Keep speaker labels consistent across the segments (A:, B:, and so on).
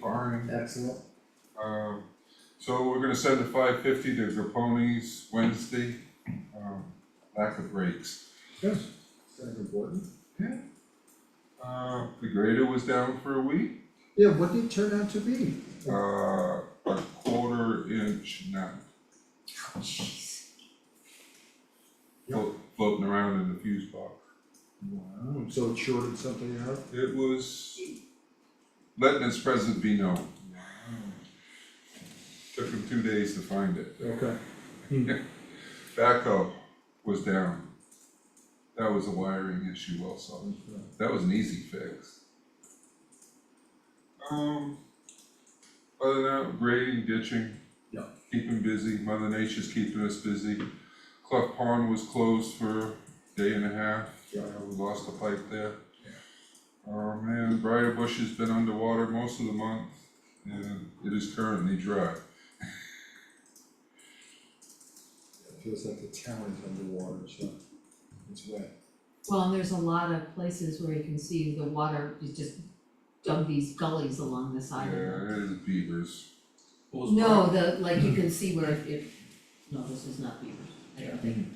A: barn.
B: Excellent.
A: Um, so we're gonna send the five fifty to Gaponi's Wednesday, um, lack of breaks.
B: Good. Senator Borton?
A: Uh, the grader was down for a week,
B: Yeah, what did it turn out to be?
A: uh, a quarter inch, not. Float, floating around in the fuse box.
B: Wow, so it shorted something out?
A: It was letting its presence be known. Took him two days to find it.
B: Okay.
A: Backhoe was down. That was a wiring issue also. That was an easy fix. Um, other than that, grading, ditching.
B: Yeah.
A: Keeping busy, Mother Nature's keeping us busy. Cleft Pond was closed for a day and a half.
B: Yeah.
A: Uh, We lost a pipe there. Oh man, Briar Bush has been underwater most of the month and it is currently dry.
B: It feels like the town is underwater, so it's wet.
C: Well, and there's a lot of places where you can see the water, you just dug these gullies along the
A: Yeah,
C: side of it.
A: it is beavers.
D: What was
C: No,
D: Briar,
C: the, like you can see where it, it- no, this is not beavers, I don't think.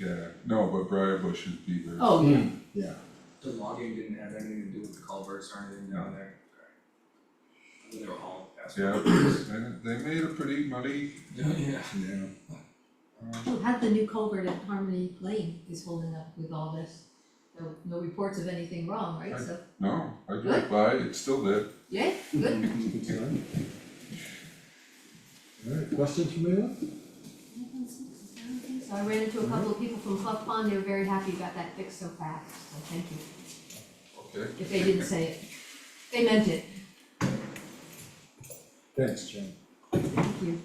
A: Yeah, no, but Briar Bush is beavers.
C: Oh, yeah,
B: Yeah.
D: the logging didn't have anything to do with the culverts or anything down there? Okay. I mean, they were all
A: Yeah,
D: asphalt.
A: and they made it pretty muddy.
D: Yeah.
B: Yeah.
A: um,
C: Well, had the new culvert at Harmony Lane is holding up with all this. No, no reports of anything wrong, right, so,
A: No, I drove by, it's still there.
C: yeah, good.
B: Good sign. Alright, questions from anyone?
C: So I ran into a couple of people from Clough Pond, they were very happy you got that fixed so fast, so thank you.
A: Okay.
C: If they didn't say it, they meant it,
B: Thanks, John.
C: thank you.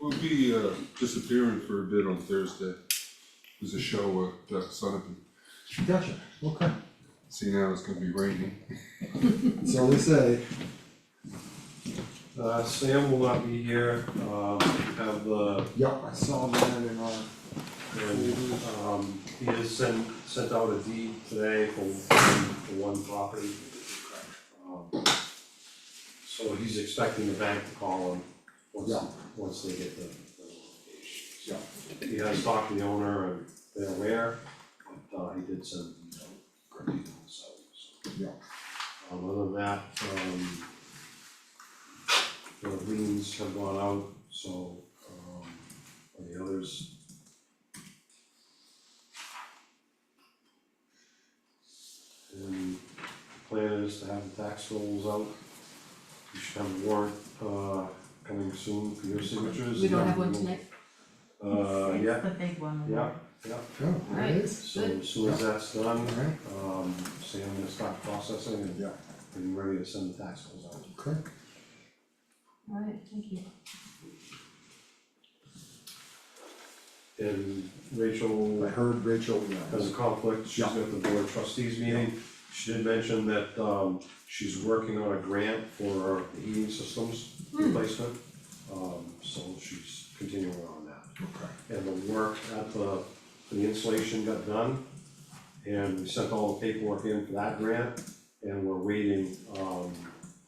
A: We'll be uh disappearing for a bit on Thursday. There's a show at uh, Sunapee.
B: Gotcha, okay.
A: See now it's gonna be raining.
B: That's all they say.
E: Uh, Sam will not be here, um, have the,
B: Yup, I saw that in our.
E: and,
B: Oh,
E: um, he has sent, sent out a deed today for, for one property. Um, So he's expecting the bank to call him once,
B: Yeah.
E: once they get the, the location. Yeah. He has talked to the owner and they're aware, but, uh, he did send, you know, great details out, so.
B: Yeah.
E: Um, other than that, um, the liens have gone out, so, um, are the others. And the plan is to have the tax rolls out. You should have a warrant, uh, coming soon for your signatures.
C: We don't have one tonight?
E: Uh, yeah,
F: The big one.
E: yeah, yeah,
B: Oh, there it is.
E: so as soon as that's done,
B: Alright,
E: um, Sam will start processing and
B: Yeah.
E: and ready to send the tax bills out.
B: okay.
C: Alright, thank you.
E: And Rachel
B: I heard Rachel, yeah.
E: has a conflict, she's
B: Yeah.
E: at the board of trustees meeting. She did mention that, um, she's working on a grant for the heating systems replacement. Um, so she's continuing on that.
B: Okay.
E: and the work at the, the installation got done. And we sent all the paperwork in for that grant, and we're waiting, um,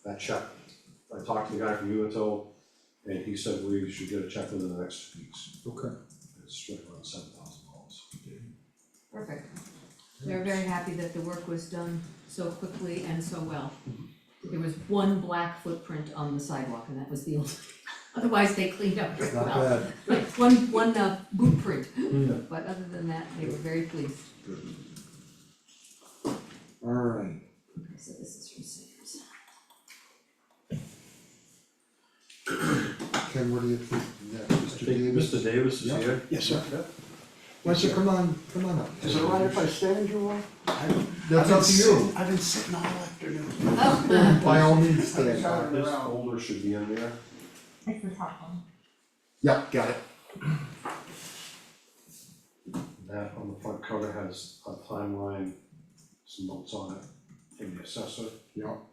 E: that check. I talked to the guy from Unitil, and he said we should get a check within the next two weeks,
B: Okay.
E: it's right around seven thousand dollars.
C: Perfect. They're very happy that the work was done so quickly and so well. There was one black footprint on the sidewalk and that was the only, otherwise they cleaned up very
B: It's not
C: well.
B: bad. Mm.
C: Like, One, one uh, boot print, but other than that, they were very pleased.
B: Alright,
C: Okay, so this is from Sam's.
B: Ken, what do you think? Yeah,
E: I
B: Mr.
E: think
B: Davis?
E: Mr. Davis is
B: Yeah.
E: here.
G: Yes, sir.
B: Why don't you come on, come on up.
G: Is it all right if I stand, Joel?
B: That's up to you.
G: I've been sitting all afternoon.
C: Oh,
B: By all means, stand
G: Yeah.
B: up.
E: This folder should be in there.
F: It's the top one.
B: Yep, got it.
E: That on the front cover has a timeline, some notes on it, from the assessor.
B: Yep.